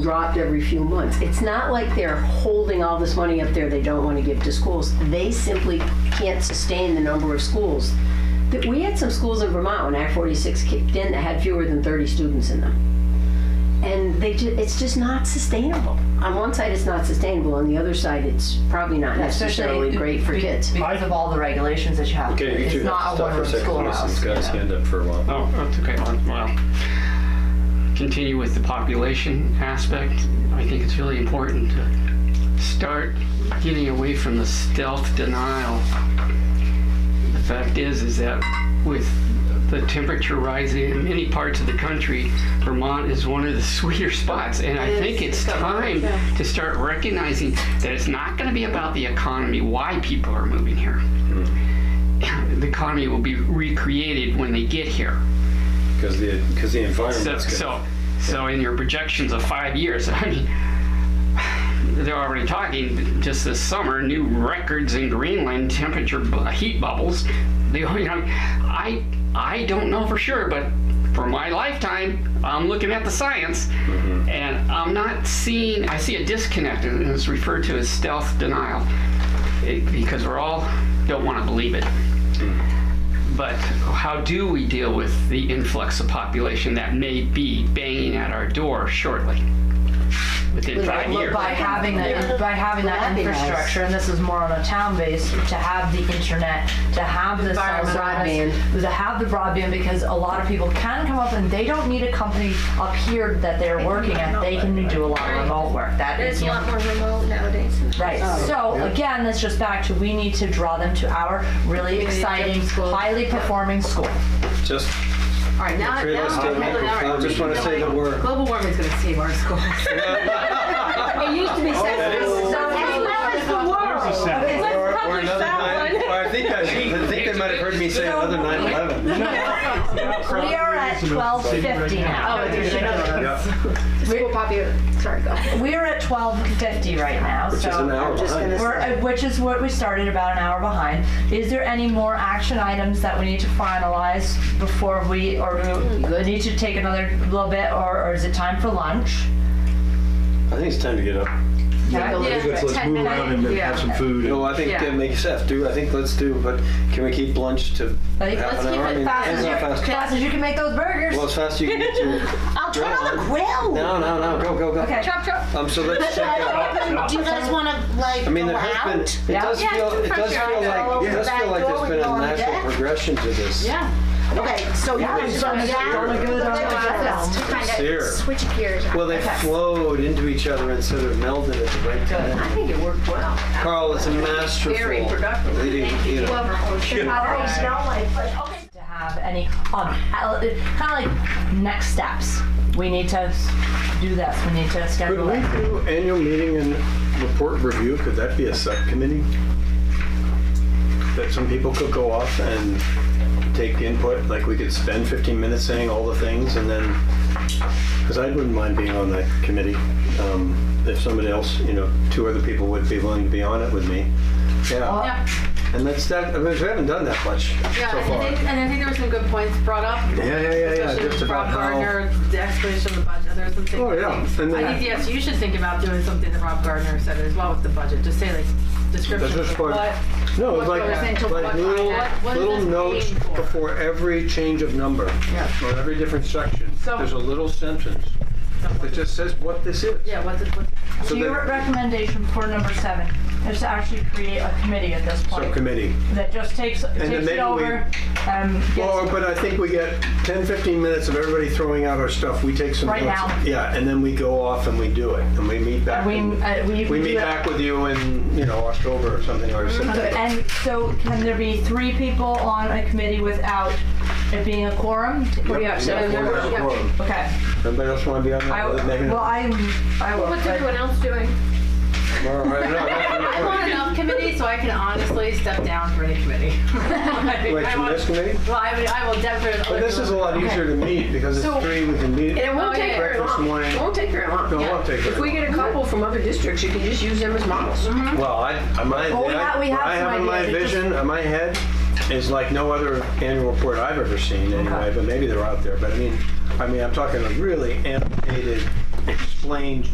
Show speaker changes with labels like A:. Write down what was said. A: dropped every few months. It's not like they're holding all this money up there they don't want to give to schools. They simply can't sustain the number of schools. That We had some schools in Vermont when Act 46 kicked in that had fewer than 30 students in them. And they, ju- it's just not sustainable. On one side, it's not sustainable, on the other side, it's probably not necessarily great for
B: be-
A: kids.
B: Because of all the regulations that you have. to do.
C: Okay, you
B: It's
C: two have
B: not
C: to
B: a
C: stop for a second.
B: one-room
C: Allison's
B: schoolhouse.
C: got his
B: you know.
C: hand up for a while.
D: Oh, that's okay. Well, continue with the population aspect. I think it's really important to start getting away from the stealth denial. The fact is, is that with the temperature rising in many parts of the country, Vermont is one of the sweeter spots. And I think it's time to start recognizing that it's not going to be about the economy, why people are moving here. The economy will be recreated when they get here.
C: Because the, because the
D: So,
C: environment's good.
D: so, so in your projections of five years, I mean, they're already talking just this summer, new records in Greenland temperature bu- heat bubbles. They, you know, I, I don't know for sure, but for my lifetime, I'm looking at the science,
C: Mm-hmm.
D: and I'm not seeing. I see a disconnect, and it's referred to as stealth denial, It- because we're all don't want to believe it. But how do we deal with the influx of population that may be banging at our door shortly? Within
A: Without
D: five
A: look
D: years.
B: By having that, by having that
A: That'd be nice.
B: infrastructure, and this is more on a town base, to have the internet, to have the cell
A: Environment.
B: service, to have the broadband, because a lot of people can come up and they don't need a company up here that they're working at. They can do a lot of remote work. That
E: It's
B: is,
E: a
B: you know,
E: lot more remote nowadays.
B: Right. So again, that's just back to we need to draw them to our really exciting, highly performing school.
C: Just,
F: All right, now,
C: Trade
F: now,
C: us
F: okay,
C: down
F: all right,
C: microphone.
F: we
C: Just
F: can
C: wanna
F: go
C: say the
F: on.
C: word.
F: Global warming's going to save our school. it used to be
C: Oh, that
F: sexist.
C: is-
F: so as well as the world. Let's
C: or, or
F: publish
C: another
F: that
C: nine,
F: one.
C: or I think I, I think they might have heard me say another 9/11.
B: We are at twelve fifty now.
F: Oh, there's another one.
C: Yeah,
F: School popu- Sorry, go. ahead.
B: We're at twelve fifty right now,
C: which is an
B: so.
C: hour behind.
B: We're, uh, which is what we started about an hour behind. Is there any more action items that we need to finalize before we, or do we need to take another little bit, or, or is it time for lunch?
C: I think it's time to get up.
B: Yeah.
F: Yeah,
G: Let's, let's
F: 10
G: move
F: minutes.
G: around and
F: Yeah.
G: have some food.
C: No, I think
F: Yeah.
C: that makes sense. Do, I think let's do, but can we keep lunch to
B: Like,
C: half
B: let's
C: an
B: keep
C: hour? I
B: it
C: mean,
B: fast as
C: it's
B: you,
C: not fast.
B: fast as you can make those burgers.
C: Well, as fast as you can get to.
H: I'll turn on the grill.
C: No, no, no, go, go, go.
B: Okay.
E: Chop, chop.
C: Um, so let's check out.
H: Do you guys want to like
C: I mean,
H: go
C: there has
H: out?
C: been, it
B: Yeah.
C: does
H: Yeah,
C: feel, it
H: for
C: does
H: sure.
C: feel like, it
H: Yeah.
C: does
H: Back
C: feel like
H: door,
C: there's
H: we
C: been
H: go
C: a
H: on
C: natural
H: deck.
C: progression to this.
H: Yeah. Okay, so you guys
B: it's
H: go
B: gonna
H: down.
B: be good on the ground.
H: Let's
E: To kind
C: Here.
E: of switch gears.
C: Well, they flowed into each other and sort of melded at the right time.
A: I think it worked well.
C: Carl is a masterful
A: Very productive.
C: leading, you know.
E: Whoever owns it.
B: to have any um, kind of like next steps. We need to s- do this. We need to
G: Could
B: schedule
G: we
B: it.
G: do annual meeting and report review? Could that be a subcommittee? That some people could go off and take input, like we could spend 15 minutes saying all the things and then, because I wouldn't mind being on that committee. um, If somebody else, you know, two other people would be willing to be on it with me. Yeah.
H: Yeah.
G: And that's that, I mean, we haven't done that much
H: Yeah,
G: so
H: and
G: far.
H: I, think, and I think there were some good points brought up.
G: Yeah, yeah, yeah, yeah,
H: especially
G: just
H: with
G: about
H: Rob
G: how.
H: Gardner, the explanation of the budget. There were some things.
G: Oh, yeah. And
H: I
G: then-
H: think yes, you should think about doing something that Rob Gardner said as well with the budget. Just say like description
G: That's
H: of
G: part-
H: what.
G: No, it's
H: What goes into
G: like, like
H: what
G: little,
H: content? What is
G: little
H: this
G: notes
H: being for?
G: before every change of number, or every different section.
H: So-
G: There's a little sentence that just says what this is.
H: Yeah, what's it, what's
G: So
B: So your
G: that-
B: recommendation for number seven is to actually create a committee at this point
G: Subcommittee.
B: that just takes
G: then
B: takes it
G: maybe we-
B: over. um, gets-
G: Well, but I think we get 10, 15 minutes of everybody throwing out our stuff. We take some
B: Right
G: notes.
B: now.
G: Yeah, and then we go off and we do it, and we meet back.
B: we,
G: in-
B: uh, we,
G: We
B: do
G: meet
B: it-
G: back with you in, you know, October or something, or
B: Okay,
G: September.
B: And so can there be three people on a committee without it being a quorum?
G: Yep,
B: Yeah, so-
G: we have a quorum.
B: Okay.
G: Anybody else want to be on
B: I,
G: that? Maybe
B: well,
G: not.
B: I, I will.
E: What's
B: but-
E: everyone else doing?
C: All right, no, no,
H: I
C: no.
H: want enough committee so I can honestly step down for any committee.
G: Wait,
H: I
G: from
H: want-
G: this committee?
H: Well, I, would, I will definitely.
G: But this is a lot easier to meet because it's
A: So-
G: three, we can meet.
A: And it won't
H: Oh,
A: take
H: yeah.
A: very
G: Breakfast
A: long.
G: morning.
A: It won't take very long.
G: No, it won't take
A: If
G: very
A: we
G: long.
A: get a couple from other districts, you can just use them as models.
G: Well, I, I might,
B: Well, we
G: I,
B: have- we have
G: I
B: some
G: have in my
B: ideas. It just-
G: vision, in my head, is like no other annual report I've ever seen anyway, but maybe they're out there. But I mean, I mean, I'm talking a really annotated, explained